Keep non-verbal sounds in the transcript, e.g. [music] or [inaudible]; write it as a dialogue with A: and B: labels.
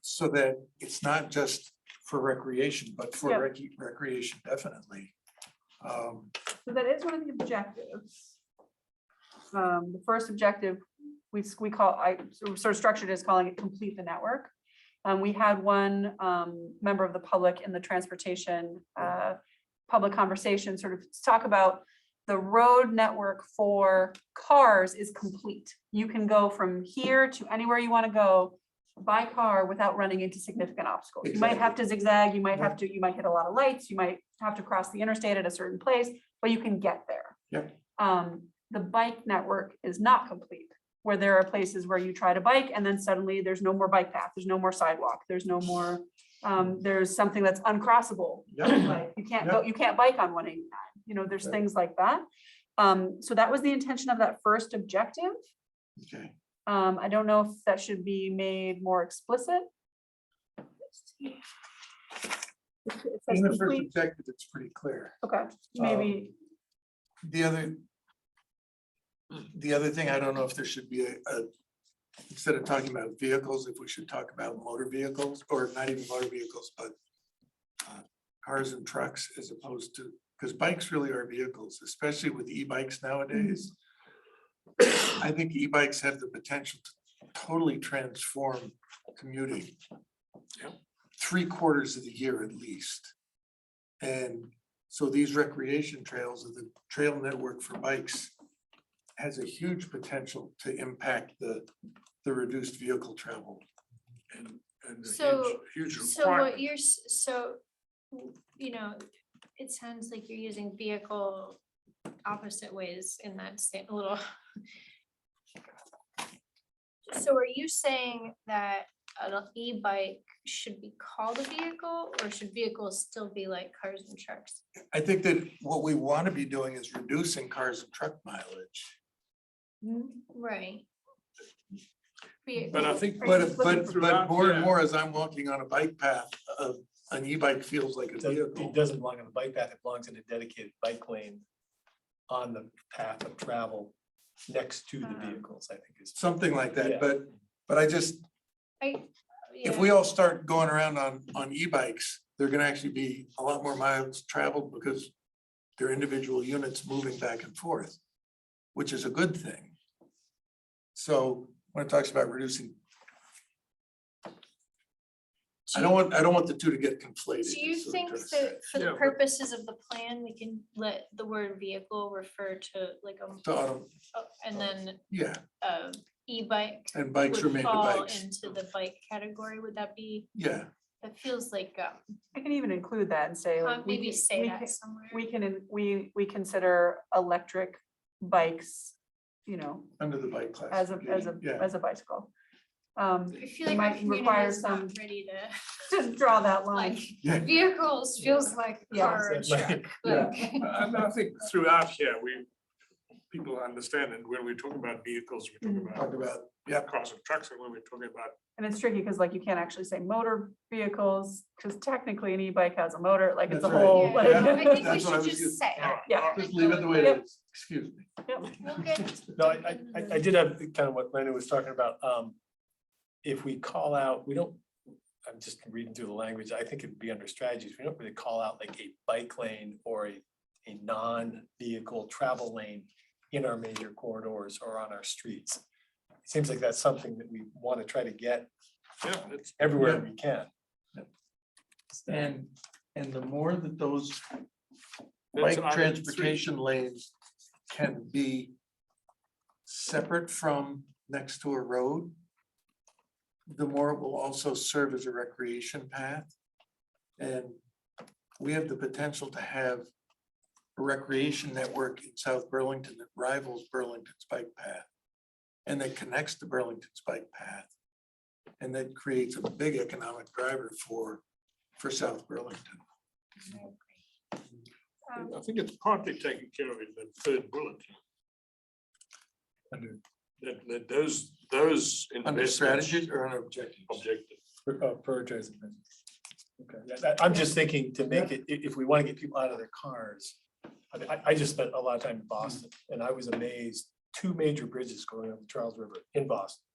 A: so that it's not just for recreation, but
B: Yeah.
A: for rec- recreation definitely. Um,
B: So that is one of the objectives. Um, the first objective, we, s- we call, I sort of structured as calling it complete the network. Um, we had one, um, member of the public in the transportation, uh, public conversation, sort of talk about the road network for cars is complete. You can go from here to anywhere you want to go by car without running into significant obstacles. You might have to zigzag, you might have to, you might hit a lot of lights, you might have to cross the interstate at a certain place, but you can get there.
A: Yep.
B: Um, the bike network is not complete, where there are places where you try to bike and then suddenly there's no more bike path, there's no more sidewalk, there's no more, um, there's something that's uncrossable.
A: Yep.
B: Like, You can't go, you can't bike on one eighty-nine, you know, there's things like that. Um, so that was the intention of that first objective.
A: Okay,
B: Um, I don't know if that should be made more explicit. It says
A: in the first
B: complete-
A: objective, it's pretty clear.
B: Okay, maybe,
A: The other. The other thing, I don't know if there should be a, a- instead of talking about vehicles, if we should talk about motor vehicles or not even motor vehicles, but. uh, Cars and trucks as opposed to, because bikes really are vehicles, especially with e-bikes nowadays. I think e-bikes have the potential to totally transform commuting. Three quarters of the year at least. And so these recreation trails of the trail network for bikes has a huge potential to impact the, the reduced vehicle travel. And, and a
C: So-
A: huge, huge
C: So what
A: requirement.
C: you're, s- so, w- you know, it sounds like you're using vehicle opposite ways in that same little. So are you saying that an e-bike should be called a vehicle or should vehicles still be like cars and trucks?
A: I think that what we want to be doing is reducing cars and truck mileage.
B: hmm,
C: Right.
D: But
C: Vehicle-
D: I think,
B: Are you
A: But, uh,
B: just
A: but,
D: looking
A: but
D: throughout?
A: more and
D: Yeah.
A: more as I'm walking on a bike path, uh, an e-bike feels like a
E: It doesn't-
A: vehicle.
E: It doesn't belong on a bike path, it belongs in a dedicated bike lane on the path of travel next to the
B: Ah.
E: vehicles, I think is.
A: Something like that,
E: Yeah.
A: but, but I just,
C: I-
A: if
C: yeah.
A: we all start going around on, on e-bikes, they're gonna actually be a lot more miles traveled because they're individual units moving back and forth, which is a good thing. So when it talks about reducing, I don't want, I don't want the two to get conflated.
C: Do you
A: is what I'm
C: think
A: trying to say.
C: that for
D: Yeah,
C: the
D: but-
C: purposes of the plan, we can let the word vehicle refer to like a,
A: So, um,
C: oh, and then
A: Yeah,
C: um e-bike
A: and bikes
C: would
A: remain the
C: fall
A: bikes.
C: into the bike category, would that be,
A: Yeah,
C: that feels like, um,
B: I can even include that and say.
C: uh,
B: like, we
C: maybe
B: can-
C: say
B: we
C: that
B: can-
C: somewhere.
B: We can, in- we, we consider electric bikes, you know,
A: under the bike class.
B: as a, as a,
A: Yeah,
B: as a bicycle. Um, [laughs]
C: I feel like
B: might
C: our community
B: require
C: is not
B: some-
C: ready to,
B: just draw that line.
C: [laughs] like,
A: [laughs] Yeah.
C: vehicles feels like
B: Yeah.
C: car and truck,
A: Yeah.
C: like.
D: and I think throughout here, we, people understand, and when we talk about vehicles, we
B: Mhm.
D: talk
A: Mm-hmm. talk
D: about
A: about, yeah,
D: cars and trucks, and when we're talking about
B: And it's tricky because like you can't actually say motor vehicles, because technically an e-bike has a motor, like it's a
A: That's right.
B: whole. like-
C: Yeah,
B: [laughs]
C: I think we
A: That's what I was
C: should
A: gonna-
C: just say.
D: all right,
B: Yeah.
D: all right.
A: just leave it the way it is, excuse me.
C: We'll
A: [laughs]
C: get-
E: [laughs] No, I, I- I, I did have kind of what Lena was talking about, um, if we call out, we don't, I'm just reading through the language, I think it'd be under strategies, we don't really call out like a bike lane or a, a non-vehicle travel lane in our major corridors or on our streets. It seems like that's something that we want to try to get
D: Yeah, it's-
E: everywhere we can.
A: And, and the more that those
D: that's
A: bike
D: item three.
A: transportation lanes can be separate from next to a road, the more it will also serve as a recreation path. And we have the potential to have a recreation network in South Burlington that rivals Burlington's bike path. And that connects to Burlington's bike path. And that creates a big economic driver for, for South Burlington.
C: um,
D: I think it's partly taken care of in the third bullet.
E: Under-
D: That, that those, those.
A: Under
D: investments-
A: strategies or under objectives?
D: Objective.
E: Pri- uh, Prioritize. the business. Okay, yeah, that- I'm just thinking to make it, i- if we want to get people out of their cars. I, I- I just spent a lot of time in Boston and I was amazed, two major bridges going over the Charles River in Boston.